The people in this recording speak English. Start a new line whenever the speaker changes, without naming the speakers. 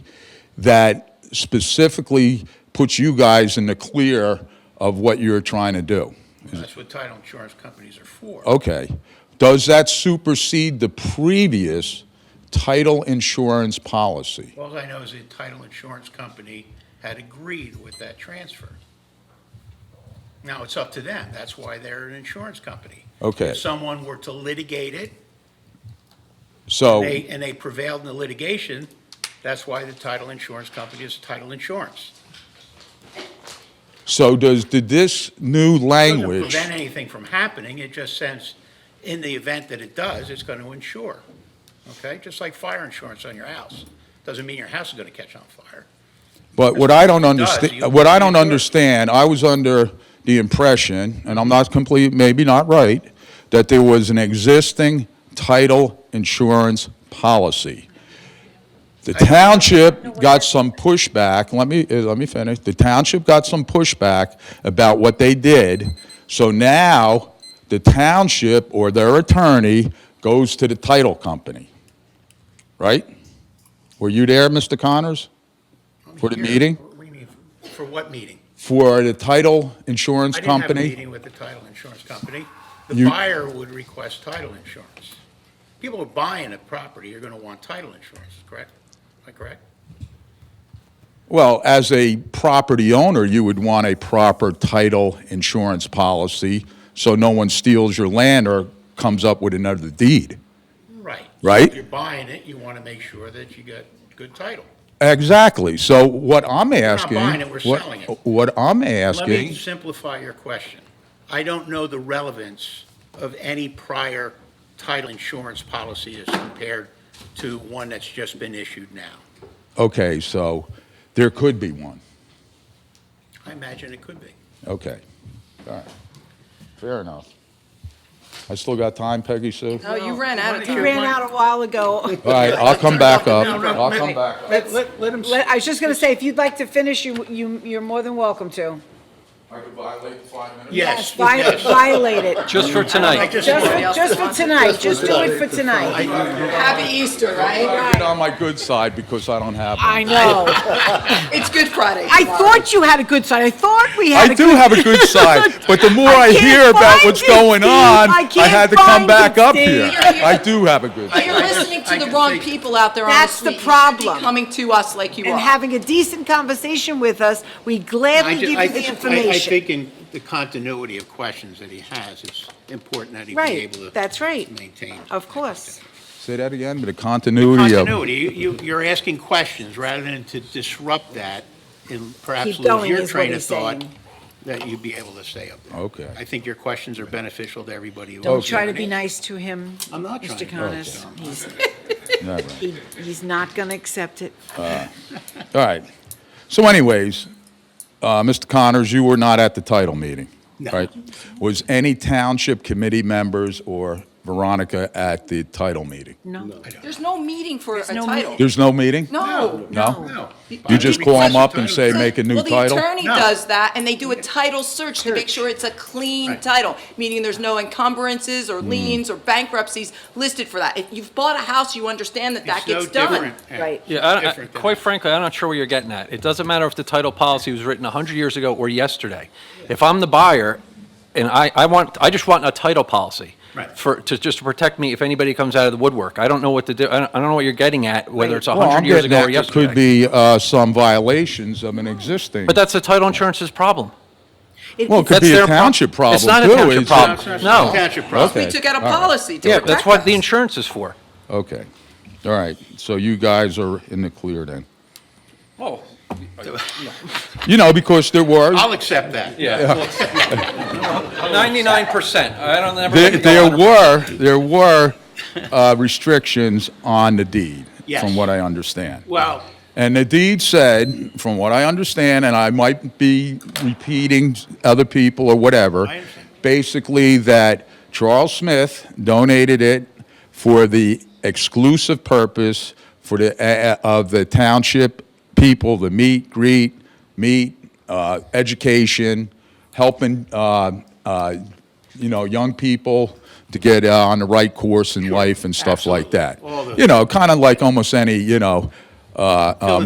that specifically puts you guys in the clear of what you're trying to do.
That's what title insurance companies are for.
Okay. Does that supersede the previous title insurance policy?
All I know is the title insurance company had agreed with that transfer. Now, it's up to them. That's why they're an insurance company.
Okay.
If someone were to litigate it,
So,
they, and they prevailed in the litigation, that's why the title insurance company is title insurance.
so does, did this new
Doesn't
language?
prevent anything from happening, it just says, in the event that it does, it's going to insure. Okay, just like fire insurance on your house. Doesn't mean your house is going to catch on fire.
But what I don't
does. You-
understand, what I don't
you do it.
understand, I was under the impression, and I'm not complete, maybe not right, that there was an existing title insurance policy. The township got some pushback, let me, eh, let me finish, the township got some pushback about what they did. So now, the township or their attorney goes to the title company, right? Were you there, Mr. Connors? For the
Here,
meeting?
what do you mean? For what meeting?
for the title insurance
I didn't have a
company.
meeting with the title insurance company. The
You-
buyer would request title insurance. People who are buying a property are going to want title insurance, correct? Am I correct?
Well, as a property owner, you would want a proper title insurance policy so no one steals your land or comes up with another deed.
Right.
Right.
If you're buying it, you want to make sure that you got good title.
Exactly. So what I'm asking.
buying it, we're
what-
selling it.
What I'm
Let me
asking,
simplify your question. I don't know the relevance of any prior title insurance policy as compared to one that's just been issued now.
okay, so there could be one.
I imagine it could be.
Okay. All right. Fair enough. I still got time, Peggy Sue?
Oh, you ran out of
You
time.
ran
ran out a while ago.
All right, I'll come back up.
No, no,
I'll
let-
come back up.
Let, let, let him.
Let- I was just going to say, if you'd like to finish, you, you, you're more than welcome to.
I could violate the five minutes.
Yes,
Vi-
yes.
Violate it.
Just
I
for tonight.
just,
Just for, just for tonight, just do it for tonight.
Happy Easter, right?
Get on my good side because I don't have one.
I know.
It's Good Friday.
I thought you had a good side. I thought we had
I
a
do
good.
have a good side, but the more I,
can't
hear about
find
what's
it,
going
Steve.
on,
I
I,
can't
had to come
find
back
it,
up
Steve.
here. I do have a good
You're
side.
listening
I
to the
can
wrong
see-
people out there on the
That's the
street. You should be
problem.
Coming to us like you
And
are.
having a decent conversation with us, we gladly
I
give
ju-
you
I
the
think, I- I
information.
think in the continuity of questions that he has, it's important that he be
Right,
able to.
that's right.
Maintain.
Of course.
Say that again, but the continuity of.
Continuity, you- you, you're asking questions rather than to disrupt that and perhaps
Keep
lose
going
your
is what
train of
he's
thought
saying.
that you'd be able to stay up there.
Okay.
I think your questions are beneficial to everybody. who
Don't
lives
try to
here.
be nice to him,
I'm not trying to
Mr.
be
Connors.
nice to him.
He's,
Never.
he, he's not going to accept it.
All right. So anyways, uh, Mr. Connors, you were not at the title meeting,
No.
right? Was any township committee members or Veronica at the title meeting?
No.
There's no meeting for a
no
title.
There's no meeting?
No.
No?
No.
You just call them up and say,
So-
make a new
Well, the
title?
attorney
No.
does that, and they do a title search to make sure it's a clean
Right.
title, meaning there's no encumbrances
Mm.
or liens or bankruptcies listed for that. If you've bought a house, you understand that that
It's no
gets done.
different.
Right.
Yeah, I- I-
Different than
quite
that.
frankly, I'm not sure what you're getting at. It doesn't matter if the title policy was written 100 years ago or yesterday. If I'm the buyer, and I, I want, I just want a title policy.
Right.
For, to, just to protect me if anybody comes out of the woodwork. I don't know what to do, I don't, I don't know what you're getting at, whether it's
Well, I'm
100 years
getting
ago or
that there
yesterday.
could be uh, some violations of an existing.
But that's the title insurance's problem.
It-
Well, it could
That's
be a
their pro-
township
It's
problem, too.
not a township
It's-
problem.
It's not
Um, No.
Township property.
We
Okay.
took out a
All right.
policy to
Yeah,
protect
that's what the
us.
insurance is for.
Okay, all right, so you guys are in the clear then?
Oh,
You know, because there were,
I'll accept that.
yeah. 99%. I don't, never.
there
let it go
there
100%.
were, there were uh, restrictions on the deed,
Yes.
from what I understand.
Well,
And the deed said, from what I understand, and I might be repeating other people or whatever,
I understand.
basically that Charles Smith donated it for the exclusive purpose for the, uh, of the township people, the meet, greet, meet, uh, education, helping, uh, uh, you know, young people to get uh, on the right course in life and stuff like that.
All those
You know, kind of like almost any, you know, uh, uh,